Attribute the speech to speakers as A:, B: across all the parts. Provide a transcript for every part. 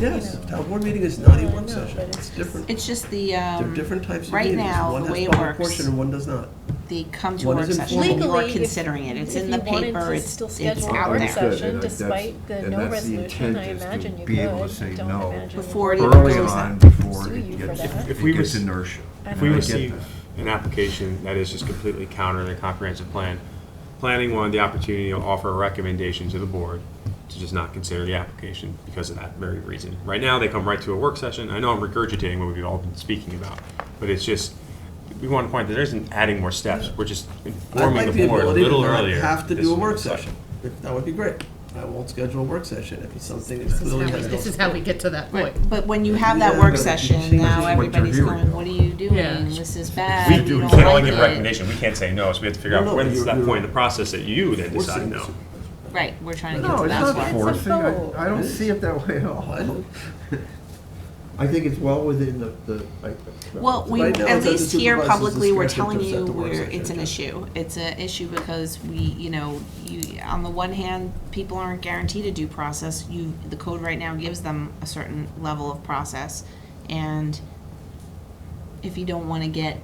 A: Yes,
B: you know.
A: town board meeting is not a
B: No, I
A: work
B: know,
A: session,
B: but
A: it's
B: it's
A: different.
C: It's just the,
A: They're
C: um,
A: different types of
C: right
A: meetings.
C: now,
A: One
C: the way
A: has
C: it
A: public
C: works-
A: portion and one does not.
C: they come to a
A: What
C: work
A: is
C: session,
A: informal?
C: you are
B: Legally, if-
C: considering it, it's
B: if
C: in
B: you
C: the
B: wanted to
C: paper, it's,
B: still
C: it's
B: schedule a
C: out
B: work
C: there.
B: session.
D: And that's-
B: despite the
D: and
B: no
D: that's
B: resolution,
D: intent
B: I
D: is to
B: imagine you
D: Be able
B: could.
D: to say
B: Don't
D: no
B: imagine you
C: Before it
B: would.
C: even
D: early
C: goes
D: on,
C: out.
B: Sue
D: before it
B: you for
D: gets,
B: that.
E: If
D: it
E: we
D: gets
E: rec-
D: inertia.
E: If
D: And
E: we
D: I get
E: receive
D: that.
E: an application that is just completely counter to the comprehensive plan, planning wanted the opportunity to offer a recommendation to the board to just not consider the application because of that very reason. Right now, they come right to a work session. I know I'm regurgitating what we've all been speaking about, but it's just, we want to point that there isn't adding more steps. We're just
A: I'd
E: informing
A: like the
E: the board a
A: ability to
E: little
A: not
E: earlier.
A: have to
E: this
A: do a
E: is
A: work
E: what's up.
A: session. If- That would be great. I won't schedule a work session if it's something that
F: This is
A: clearly
F: how
A: has
F: we-
A: no.
F: This is how we get to that point.
C: But when you have that
A: Yeah,
C: work
A: but
D: it's
C: session, now
D: what you're
C: everybody's
D: doing.
C: going, what are you
F: Yeah.
C: doing? This is bad,
E: We
C: you
E: do,
C: don't
E: we can only
C: like
E: make a
C: it.
E: recommendation. We can't say no, so we have to figure
A: No,
E: out
A: no,
E: when's
A: you're-
E: that
A: you're-
E: point in the process that you then decide
A: forcing
E: no.
A: this.
C: Right, we're trying to get
A: No,
D: No,
C: to
D: it's
C: that
D: not
C: point.
D: forcing.
B: vote.
D: I, I don't see it that way at all. I don't- I think it's well within the, the. I-
C: Well, we,
A: Right now,
C: at
A: it's at the
C: least here
A: supervisor's
C: publicly, we're
A: discretion
C: telling
A: to set
C: you
A: the work
C: we're,
A: session
C: it's an
A: agenda.
C: issue. It's an issue because we, you know, you, on the one hand, people aren't guaranteed a due process. You, the code right now gives them a certain level of process. And if you don't wanna get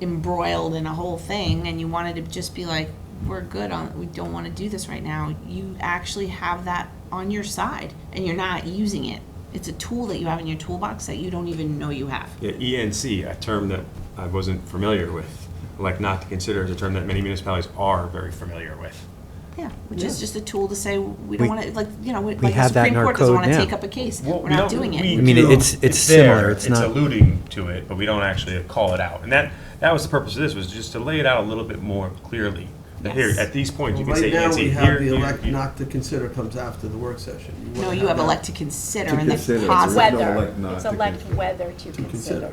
C: embroiled in a whole thing and you wanted to just be like, we're good on, we don't wanna do this right now, you actually have that on your side and you're not using it. It's a tool that you have in your toolbox that you don't even know you have.
E: Yeah, ENC, a term that I wasn't familiar with, like not to consider is a term that many municipalities are very familiar with.
C: Yeah, which is just a tool to say, we don't
G: We-
C: want to, like, you know, like the
G: have that in
C: Supreme
G: our
C: Court doesn't
G: code
C: want to
G: now.
C: take up a case.
E: Well, we
C: We're not
E: don't-
C: doing
E: we
C: it.
G: I mean,
E: do.
G: it's- it's
E: there,
G: similar, it's not-
E: alluding to it, but we don't actually call it out. And that, that was the purpose of this, was just to lay it out a little bit more clearly. That Here,
C: Yes.
E: at these points, you can say
A: Right now, we
E: ENC,
A: have
E: here,
A: the
E: here,
A: elect
E: here.
A: not to consider comes after the work session. wanna
C: No, you
A: have
C: have
A: that.
C: elect to consider
D: To
C: and the
D: consider,
C: positive,
D: No,
B: Whether,
D: elect not
B: it's
D: to
B: elect
D: consider.
B: whether to
A: consider.
B: consider.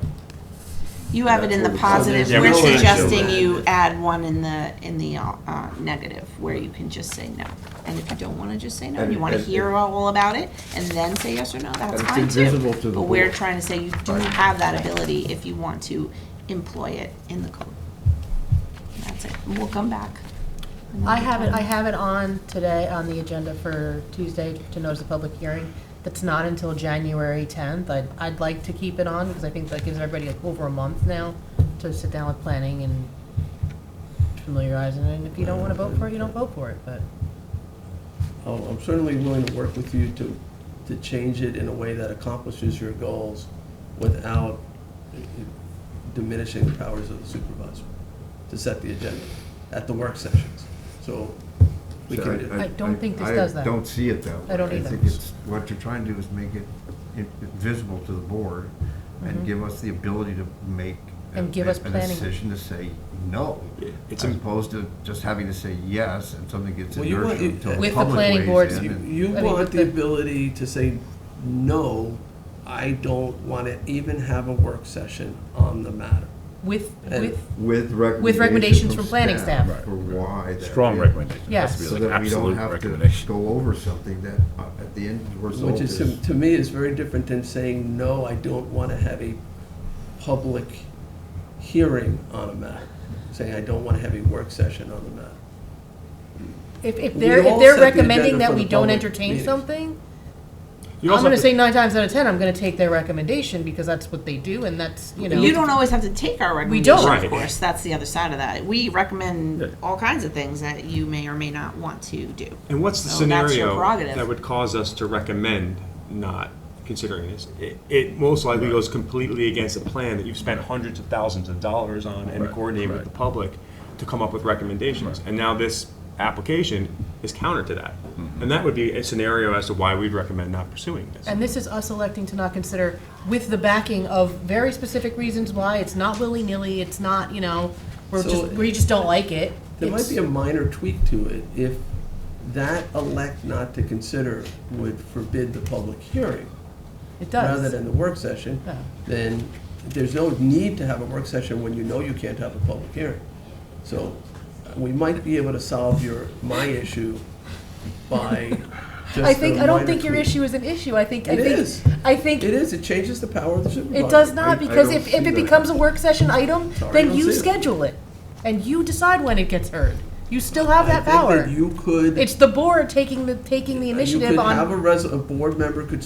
C: you have it in the
D: That's what it
C: positive.
A: is. Yeah,
C: We're
A: we can't do
C: suggesting
A: that.
C: you add one in the, in the uh, negative, where you can just say no. And if you don't want to just say no, and you
D: And-
C: want to
D: and-
C: hear all about it, and then say yes or no, that's
D: it's
C: fine
D: invisible to
C: too.
D: the
C: But we're
D: board.
C: trying to say you do
D: Right.
C: have that ability if you want to employ it in the code. That's it. And We'll come back.
F: I have it, I have it on today, on the agenda for Tuesday to notice a public hearing. That's not until January 10th. I'd, I'd like to keep it on because I think that gives everybody like over a month now to sit down with planning and familiarize. And if you don't want to vote for it, you don't vote for it, but.
A: Oh, I'm certainly willing to work with you to, to change it in a way that accomplishes your goals without eh, diminishing the powers of the supervisor to set the agenda at the work sessions. So we
D: So
A: can do.
F: I don't think this
D: I
F: does that.
D: don't see it that way.
F: I don't either.
D: think it's, what you're trying to do is make it in- visible to the board and give us the ability to make. a-
F: Mm-hmm. And give us
D: A
F: planning.
D: decision to say no,
E: Yeah, it's
D: as
E: im-
D: opposed to just having to say yes and something gets
A: Well, you want-
D: inertia until
A: With
D: the
F: the
D: public
F: planning
D: weighs
F: board's-
D: in.
A: You
D: and-
A: you
F: I mean,
A: want the
F: the-
A: ability to say, no, I don't want to even have a work session on the matter.
F: With,
A: And-
F: with,
D: With recommendations.
F: recommendations from planning staff.
D: For why. that
H: Strong
D: is.
H: recommendation. It has to
F: Yes.
H: be
D: So
H: like
D: that we don't
H: absolute
D: have to
H: recommendation.
D: go over something that uh, at the end the result
A: Which is,
D: is.
A: to to me, is very different than saying, no, I don't want to have a public hearing on a matter. Saying, I don't want to have a work session on the matter.
F: if, if
A: We
F: they're,
A: all
F: if
A: set
F: they're
A: the agenda
F: recommending
A: for
F: that
A: the
F: we don't
A: public
F: entertain
A: meetings.
F: something,
E: You
F: I'm
E: also
F: gonna
E: have to-
F: say nine times out of ten, I'm gonna take their recommendation because that's what they do and that's, you know.
C: You don't always have to take our
F: We don't.
C: recommendation, of
E: Right.
C: course, that's the other side of that. We recommend all kinds of things that you may or may not want to do.
E: And what's the
C: So Oh, that's your
E: scenario
C: prerogative.
E: that would cause us to recommend not considering this? It, it most likely goes completely against a plan that you've spent hundreds of thousands of dollars on and coordinated with the public to come up with recommendations. And now this application is counter to that. And that would be a scenario as to why we'd recommend not pursuing this.
F: And this is us electing to not consider with the backing of very specific reasons why. It's not willy-nilly, it's not, you know, we're
A: So-
F: just, we just don't like it.
A: There might
F: It's-
A: be a minor tweak to it if that elect not to consider would forbid the public hearing
F: It
A: rather
F: does.
A: than the work session,
F: Yeah.
A: then there's no need to have a work session when you know you can't have a public hearing. So uh, we might be able to solve your, my issue by just
F: I think,
A: a
F: I don't
A: minor
F: think your
A: tweak.
F: issue is an issue. I think, I
A: It
F: think.
A: is.
F: I think
A: It is, it changes the power of the supervisor.
F: It does
D: I-
F: not,
D: I
F: because
D: don't
F: if, if
D: see
F: it
D: that.
F: becomes a work session item,
A: Sorry, I
F: then
A: don't
F: you
A: see it.
F: schedule it. And you decide when it gets heard. You still have that
A: I think
F: power.
A: that you could, uh,
F: It's the board taking the, taking the
A: you
F: initiative
A: could
F: on.
A: have a res, a board member could